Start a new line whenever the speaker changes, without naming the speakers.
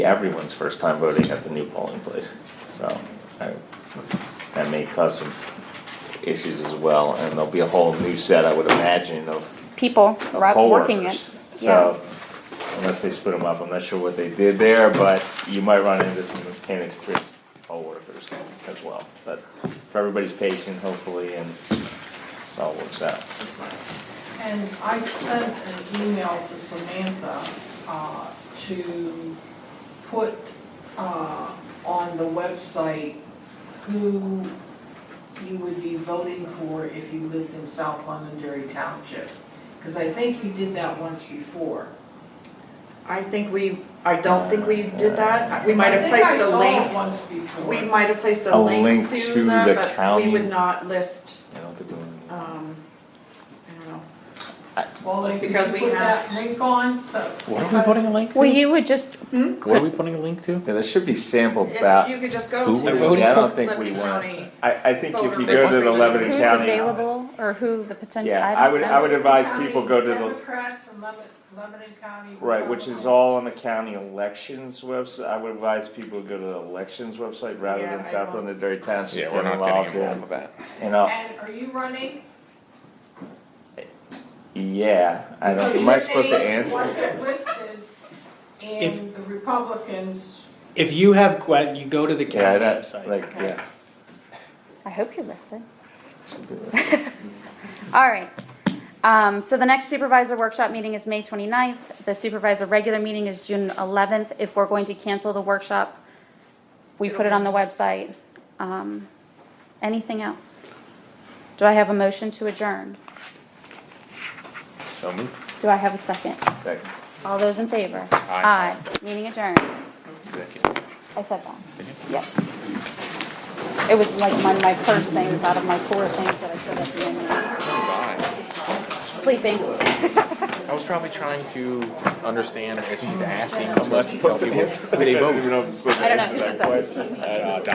everyone's first time voting at the new polling place. So I- that may cause some issues as well, and there'll be a whole new set, I would imagine, of
people
of
ru-
poll
working
workers.
it.
So hmm? unless they split them up, I'm not sure what they did there, but you might run into some inexperienced poll workers as well. But for everybody's patient, hopefully, and it all works out.
And I sent an email to Samantha, uh, to put, uh, on the website who you would be voting for if you lived in South Londonderry Township. Cause I think you did that once before.
I think we, I don't think we did that. We might have
I think
placed a
I saw it
link,
once before.
we might have placed a
A
link to
the
that, but we
county.
would not list,
I don't think we-
um, I don't know.
Well, like, could you
because we
put
have-
that link on, so.
What are we
because-
putting a link to?
Well, you would just,
Hmm?
What are we putting a link to?
Yeah, there should be sample
If
about,
You
I
could just
who
go
we're
to
voting
don't
for?
think we
Lebanon
want-
County.
I think if you go to
Voter
the
registration.
Lebanon
who's
County.
available or who the potential,
Yeah,
I
I would,
don't
I would
know.
advise people go to
County
the,
Democrats and Lebanon, Lebanon County.
right, which is
Republicans.
all on the county elections website, I would advise people to go to the elections website rather
Yeah,
than
I
South
won't.
London Dairy Township.
Yeah, we're
get
not
involved
getting
in-
involved with that.
You know,
And are you running?
yeah, I don't,
Because
am I
your
supposed to
name
answer?
Wasn't listed in the Republicans,
If you have que, you go to the
Yeah, I
county
don't,
website.
like, yeah.
I hope you're listed. All right. Um, so the next supervisor workshop meeting is May 29th. The supervisor regular meeting is June eleventh. If we're going to cancel the workshop, we put it on the website. Um, anything else? Do I have a motion to adjourn?
Show me,
Do I have a second?
second,
All those in favor?
Aye.
Meeting adjourned.
second.
I said that. Yep. It was like one of my first things out of my four things that I said at the end.
Bye.
Sleeping.
I was probably trying to understand if she's asking. Unless, do they vote?
I don't know. Who says that?